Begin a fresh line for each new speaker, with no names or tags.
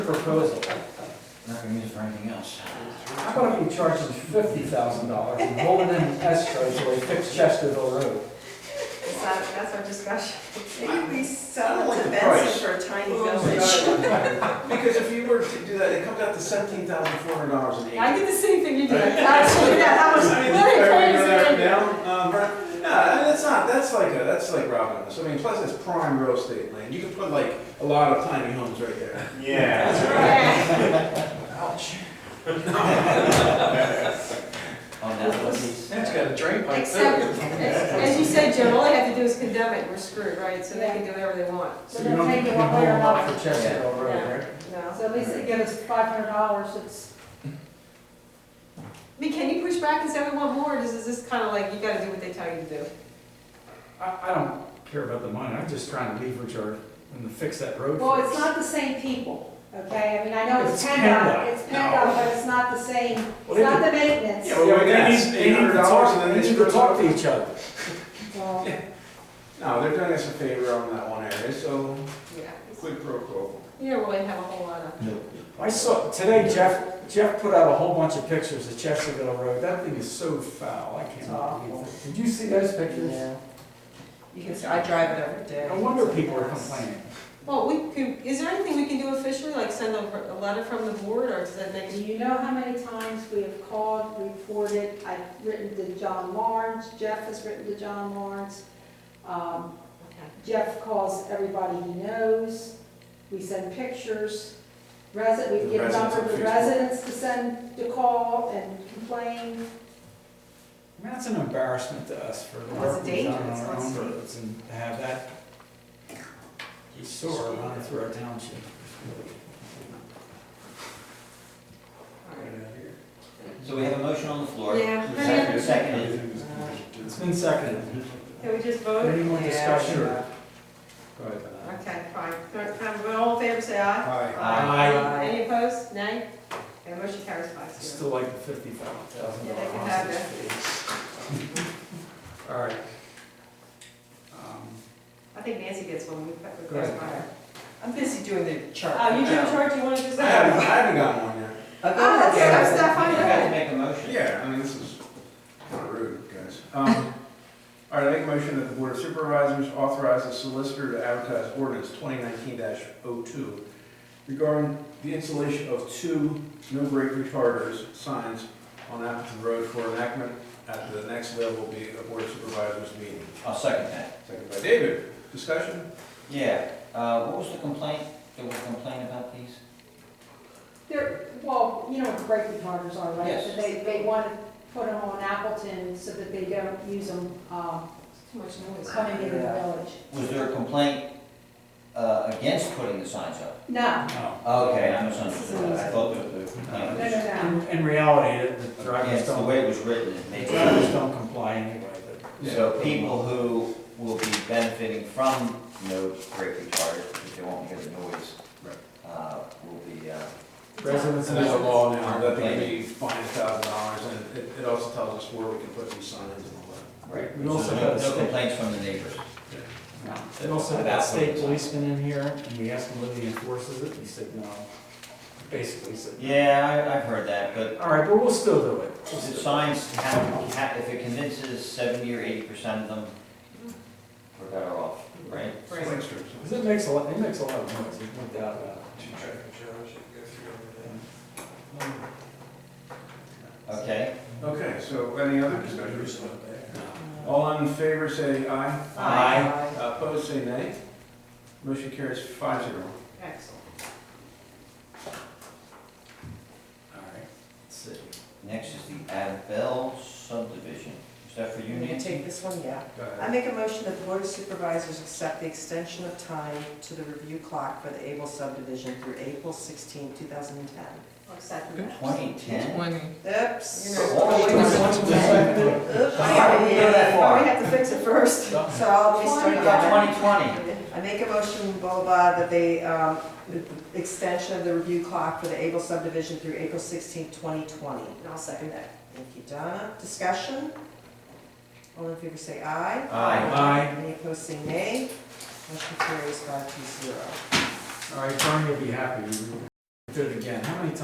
proposal.
Not gonna use it for anything else.
How about if we charge them fifty thousand dollars and hold it in escrow till we fix Chesterville Road?
Is that, that's our discussion?
Maybe we
I don't
sell
like
it
the
to
price.
Benson for a tiny village.
Because if you were to do that, it comes out to seventeen thousand four hundred dollars an
I
acre.
did the same thing you did,
Right.
actually, yeah, that was
I mean,
really
are we gonna go
crazy.
down, um, right? No, I mean, that's not, that's like, a- that's like robbing us. I mean, plus it's prime real estate land. You could put like a lot of tiny homes right there.
Yeah.
Yeah.
Ouch.
on Oh, that one piece.
That's got a drain pipe
Except,
too.
as as you said, Jim, all they have to do is condemn it, we're screwed, right? So they can do whatever they want.
So you don't need to hold them up for Chesterville Road, right?
No.
So at least they give us five hundred dollars, it's,
I mean, can you push back and say we want more, or is this kind of like, you gotta do what they tell you to do?
I, I don't care about the money, I'm just trying to leverage our, and to fix that road.
well,
first.
it's not the same people, okay? I mean, I know it's
It's
PennDOT,
PennDOT.
it's PennDOT, but it's not the same,
Well,
it's
they
not the maintenance.
Yeah,
Yeah,
well,
but they
that's
need, they need to
$800 and
talk,
then
they
they
need to
screw
talk
it
to
up.
each other.
So-
No, they're doing us a favor on that one area, so
Yeah.
quid pro quo.
You don't really have a whole lot of,
I saw, today Jeff, Jeff put out a whole bunch of pictures of Chesterville Road, that thing is so foul, I can't believe it. Did you see those pictures?
You can, I drive it every day.
No wonder people are complaining.
well, we could, is there anything we can do officially, like send a, a letter from the board, or does that make
Do
you?
you know how many times we have called, reported, I've written to John Lawrence, Jeff has written to John Lawrence. Um, Jeff calls everybody he knows, we send pictures, resident, we
The
get a
residents
number of
on
the
Facebook.
residents to send, to call and complain.
I mean, that's an embarrassment to us for the
Well,
work
it's
we've done
dangerous,
on our own
let's see.
roads and to have that sewer run through our township.
So we have a motion on the floor.
Yeah.
Second- Seconded.
It's been seconded.
Can we just vote?
Any more discussion? Go ahead.
Okay, fine. Third time, vote. all in favor, say aye.
Hi.
Aye.
Any opposed? Nay? Okay, motion carries five
I
zero.
Still like the fifty-five thousand
Yeah,
dollar
they can have
hostage fee. All right. Um,
I think Nancy gets one, we put, we
Go ahead.
clarify her.
I'm busy doing the chart.
Uh, you do a chart, you wanna do
I
that?
haven't, I haven't gotten one yet.
Oh,
Ah, okay, that's that
You
fine, go
have to
ahead.
make a motion.
Yeah, I mean, this is kind of rude, guys. Um, All right, I make a motion that the Board of Supervisors authorize the solicitor to advertise ordinance 2019-02 regarding the installation of two no-break retarders signs on Appleton Road for enactment at the next level will be a Board of Supervisors meeting.
I'll second that.
Second by David, discussion?
Yeah, uh, what was the complaint? There was a complaint about these?
They're, well, you know what brake retarders are, right?
Yes.
They, they want to put them on Appleton so that they don't use them, um,
Too much noise.
coming into the village.
Was there a complaint, uh, against putting the signs up?
No,
no. Uh,
Okay, I misunderstood. I thought that the
no,
complaint
no,
was,
no.
In- In reality, the- the drivers
against the way
don't,
it was written, it
the
made
drivers don't comply anyway, but.
So people who will be benefiting from no brake retarders, if they won't hear the noise,
Right.
uh, will be, uh,
Residents.
So there's a law now that they can be fined $1,000, and it- it also tells us where we can put these signs and all that.
right.
We also
So no-
had a
No
state-
complaints from the neighbors.
No. They also had that state policeman in here, and we asked him whether he enforces it, he said no. Basically said, no.
Yeah, I, I've heard that, but
all right, but we'll still do it.
Is it signs, have- have- if it convinces seventy or eighty percent of them, we're better off, right?
Right.
Because it makes a lot, it makes a lot of noise, there's no doubt about it.
Okay?
Okay, so any other discussion? All in favor, say aye.
Aye.
Uh, Opposed, say nay. Motion carries five zero.
Excellent.
All right, let's see.
Next is the Adabel subdivision. Is that for you,
You need to
Nancy?
take this one, yeah.
Go
I
ahead.
make a motion that the Board of Supervisors accept the extension of time to the review clock for the Able subdivision through April 16, 2010.
I'll second that.
Twenty ten?
You're
Oops.
not-
Oops.
Sorry, we go that far.
We have to fix it first, so I'll be starting again.
Twenty twenty?
I make a motion, blah, blah, blah, that they, um, the extension of the review clock for the Able subdivision through April 16, 2020.
And I'll second that.
Thank you, Donna. Discussion? All in favor say aye.
Aye.
Any opposed say nay. Motion carries five to zero.
All right, Vern, you'll be happy. You- did it again. How many times